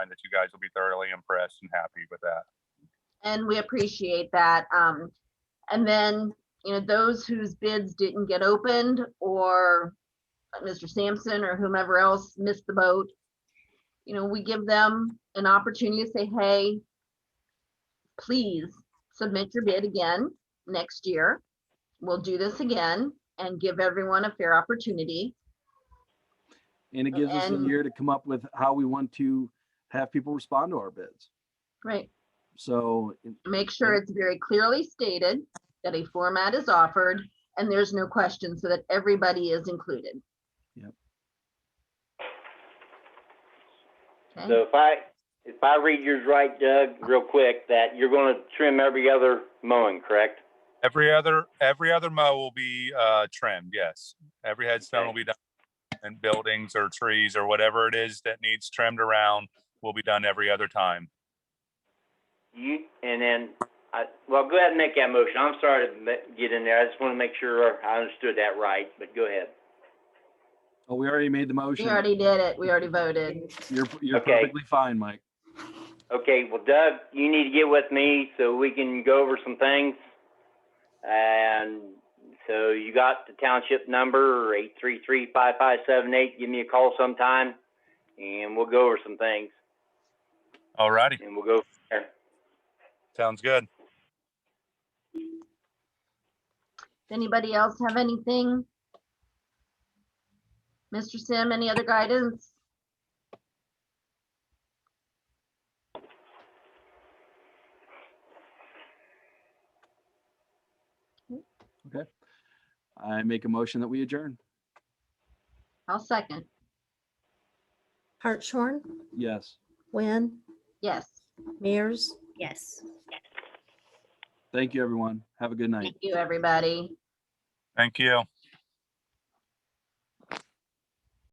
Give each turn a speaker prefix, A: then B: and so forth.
A: that you guys will be thoroughly impressed and happy with that.
B: and we appreciate that. Um, and then, you know, those whose bids didn't get opened or Mr. Sampson or whomever else missed the boat, you know, we give them an opportunity to say, hey, please submit your bid again next year. We'll do this again and give everyone a fair opportunity.
C: And it gives us a
B: And-
C: year to come up with how we want to have people respond to our bids.
B: Right.
C: So it-
B: Make sure it's very clearly stated that a format is offered and there's no question so that everybody is included.
C: Yep.
B: Okay,
D: So if I, if I read yours right, Doug, real quick, that you're gonna trim every other mowing, correct?
A: Every other, every other mow will be uh, trimmed, yes. Every headstone will be done. And buildings or trees or whatever it is that needs trimmed around will be done every other time.
D: You, and then, I, well, go ahead and make that motion. I'm sorry to ma- get in there. I just wanna make sure I understood that right, but go ahead.
C: oh, we already made the
B: we
C: motion.
B: already did it. We already voted.
C: You're, you're
D: Okay.
C: perfectly fine, Mike.
D: Okay, well, Doug, you need to get with me so we can go over some things. And so you got the township number, eight three three five five seven eight. Give me a call sometime and we'll go over some things
A: All righty,
D: and we'll go from there.
A: sounds good.
B: Does Anybody else have anything? Mr. Sim, any other guidance?
C: I make a motion that we adjourn.
B: I'll second.
E: Hartshorn,
C: Yes.
E: Wynn,
B: Yes,
E: Mears,
F: Yes.
C: Thank you, everyone. Have a good night.
B: thank you, everybody.
A: Thank you.